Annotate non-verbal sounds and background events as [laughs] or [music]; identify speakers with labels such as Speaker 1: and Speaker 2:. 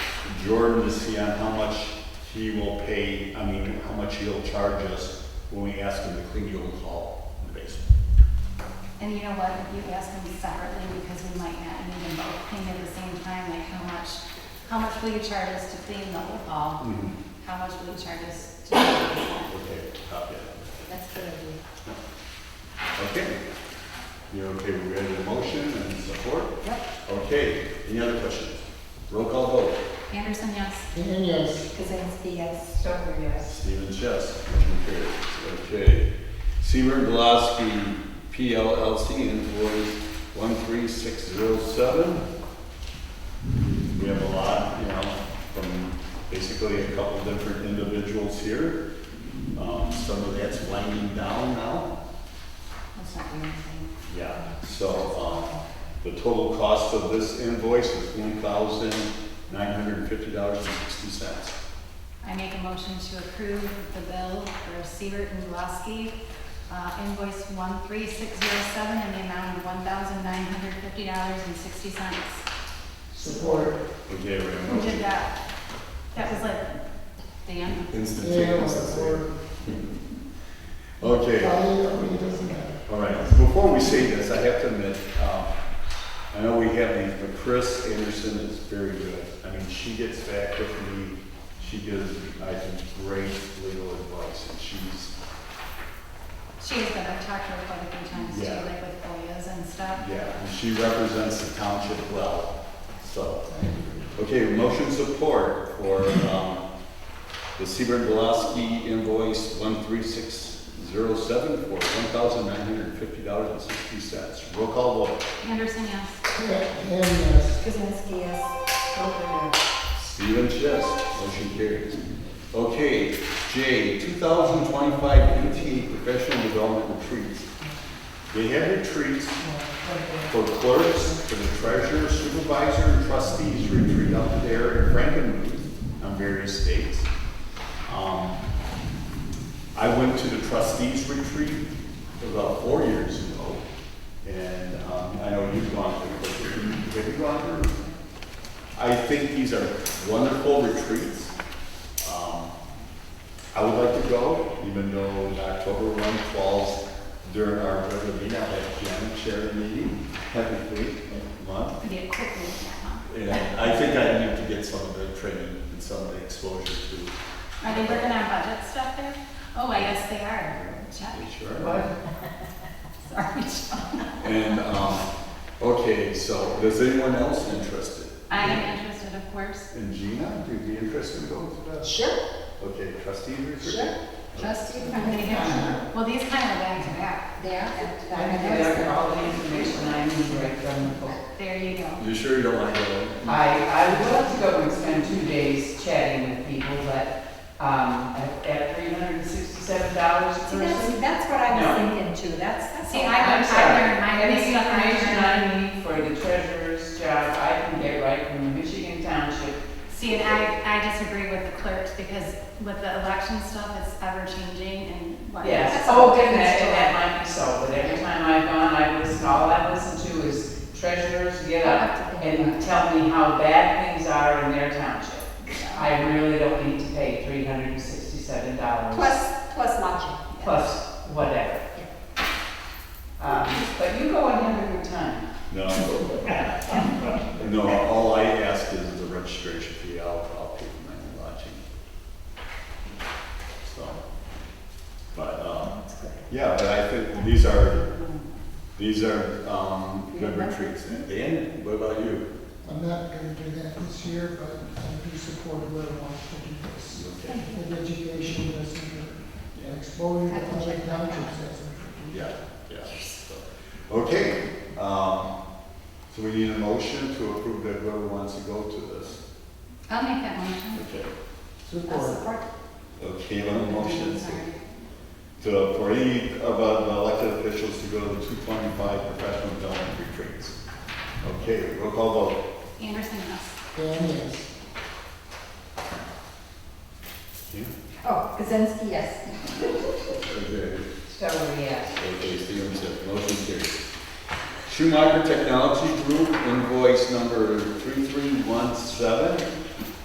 Speaker 1: Jordan to see on how much he will pay, I mean, how much he'll charge us when we ask him to clean the old hall in the basement.
Speaker 2: And you know what, if you ask them separately, because we might not need them both cleaned at the same time, like how much, how much will you charge us to clean the whole hall? How much will you charge us to?
Speaker 1: Okay, copy that.
Speaker 2: That's good of you.
Speaker 1: Okay. You're okay, we ready to motion and support?
Speaker 2: Yep.
Speaker 1: Okay, any other questions? Roll call vote.
Speaker 2: Anderson, yes?
Speaker 3: Hinton, yes.
Speaker 2: Kazinsky, yes.
Speaker 4: Stover, yes.
Speaker 1: Stephen Chess, motion carries. Okay. Seaver Gillespie PLLC invoice 13607. We have a lot, you know, from basically a couple different individuals here. Um, Some of that's winding down now.
Speaker 2: That's not your thing.
Speaker 1: Yeah, so, um, the total cost of this invoice is one thousand nine hundred and fifty dollars and sixty cents.
Speaker 2: I make a motion to approve the bill for Siebert and Gillespie, uh, invoice one three six zero seven in the amount of one thousand nine hundred fifty dollars and sixty cents.
Speaker 3: Support.
Speaker 1: Okay, we have a
Speaker 2: Who did
Speaker 1: motion.
Speaker 2: that? That was like. Dan?
Speaker 3: Yeah, support.
Speaker 1: Okay,
Speaker 3: Probably, I mean, it doesn't matter.
Speaker 1: all right, before we say this, I have to admit, um, I know we have these, but Chris Anderson is very good. I mean, she gets back with me, she gives, I think, great legal advice, and she's,
Speaker 2: She has been, I've talked to her quite a few times too,
Speaker 1: Yeah.
Speaker 2: like with FOIAs and stuff.
Speaker 1: yeah, and she represents the township well, so. Okay, motion support for, um, the Seaburn Gillespie invoice one three six zero seven for one thousand nine hundred and fifty dollars and sixty cents. Roll call vote.
Speaker 2: Anderson, yes.
Speaker 3: Hinton, yes.
Speaker 4: Kuzinski, yes. Stover, yes.
Speaker 1: Stephen Chess, motion carries. Okay, J, two thousand twenty-five MT professional development retreats. They have retreats for clerks, for the treasurer, supervisor, and trustees retreat up there in Frankenmuth on various dates. Um, I went to the trustees retreat about four years ago, and um, I know you've gone to, have you gone to? I think these are wonderful retreats. Um, I would like to go, even though the October one falls during our regular meeting, I have Jen chair the meeting every week, every month.
Speaker 2: Could be a quick move, yeah,
Speaker 1: And I think I need to get some of the training and some of the exposure to
Speaker 2: huh? Are they working on budget stuff there? Oh, I guess they are. Check,
Speaker 1: HR.
Speaker 2: sorry, Chuck.
Speaker 1: And, um, okay, so, is anyone else interested?
Speaker 2: [laughs] I am interested, of course.
Speaker 1: And Gina, do you be interested in going to that?
Speaker 4: Sure,
Speaker 1: Okay, trustee retreat?
Speaker 4: sure. Trustee,
Speaker 2: I'm gonna get- Well, these kind of back to back.
Speaker 4: There. I
Speaker 5: I have gathered all the information I need right from the book.
Speaker 2: There you go.
Speaker 1: You sure you don't want to go?
Speaker 5: I, I would love to go and spend two days chatting with people, but, um, at, at three hundred and sixty-seven dollars a
Speaker 4: See, that's,
Speaker 5: person.
Speaker 4: that's what I was thinking too, that's, that's.
Speaker 2: See,
Speaker 4: all.
Speaker 2: I
Speaker 5: I'm
Speaker 2: learned, I
Speaker 5: sorry.
Speaker 2: learned my
Speaker 5: Any
Speaker 2: big stuff. I
Speaker 5: information
Speaker 2: learned.
Speaker 5: I need for the treasurer's job, I can get right from the Michigan Township.
Speaker 2: See, and I, I disagree with the clerks because with the election stuff, it's ever changing and what.
Speaker 5: Yes, oh, and that, and that might be so, but every time I've gone, I've listened, all I've listened to is treasurers get up and tell me how bad things are in their township. I really don't need to pay three hundred and sixty-seven dollars.
Speaker 4: Plus, plus lodging.
Speaker 5: plus whatever. Um, But you go and have a good time.
Speaker 1: No. No, all I ask is the registration fee, I'll, I'll pay for my lodging. So, but, um, yeah, but I think these are, these are, um, good retreats. And Dan, what about you?
Speaker 3: I'm not gonna do that this year, but I do support whoever wants to do this.
Speaker 1: Okay.
Speaker 3: With education, that's good. And exposure to other townships, that's important.
Speaker 1: Yeah, yeah. so. Okay, um, so we need a motion to approve that whoever wants to go to this.
Speaker 2: I'll make that motion.
Speaker 1: Okay.
Speaker 3: Support.
Speaker 1: Okay, well, motion is to, for any of uh, the elected officials to go to the two twenty-five professional development retreats. Okay, roll call vote.
Speaker 2: Anderson, yes.
Speaker 3: Hinton, yes.
Speaker 4: Oh, Kuzinski, yes.
Speaker 1: Okay,
Speaker 4: Stover, yes.
Speaker 1: okay, Stephen said, motion carries. Schumacher Technology Group invoice number three-three-one-seven